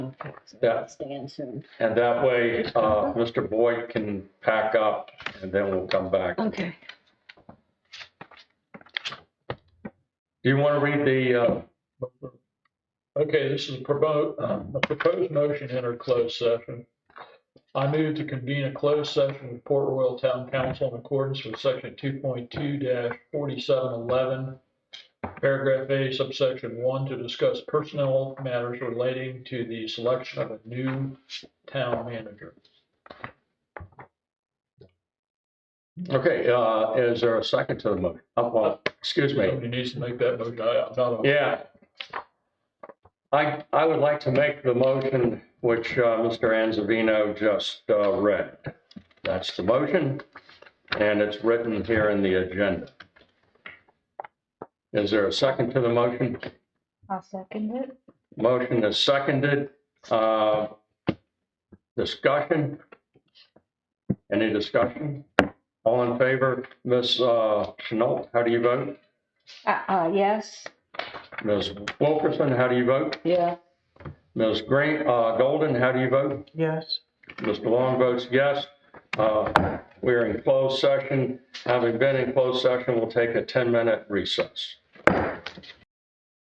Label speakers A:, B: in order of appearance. A: on for us.
B: Yeah.
A: Stand soon.
B: And that way, uh, Mr. Boyd can pack up and then we'll come back. Do
A: Okay.
B: you want to read the, uh,
C: Okay, this is a promote, a proposed motion to enter closed session. I move to convene a closed session with Port Royal Town Council in accordance with section two point two forty-seven eleven, paragraph A subsection one, to discuss personnel matters relating to the selection of a new town manager.
B: okay, uh, is there a second to the motion? Uh, well, excuse me.
C: Somebody needs to make that motion. I- I'm not a-
B: Yeah. I, I would like to make the motion which uh, Mr. Anzavino just uh, read. That's the motion, and it's written here in the agenda. Is there a second to the motion?
A: I'll second it.
B: Motion is seconded. Uh, Discussion? Any discussion? All in favor? Ms. uh, Chenault, how do you vote?
A: Uh, uh, yes.
B: Ms. Wilkerson, how do you vote?
A: Yeah.
B: Ms. Green, uh, Golden, how do you vote?
D: Yes.
B: Mr. Long votes yes. Uh, we're in closed session. Having been in closed session, we'll take a ten-minute recess.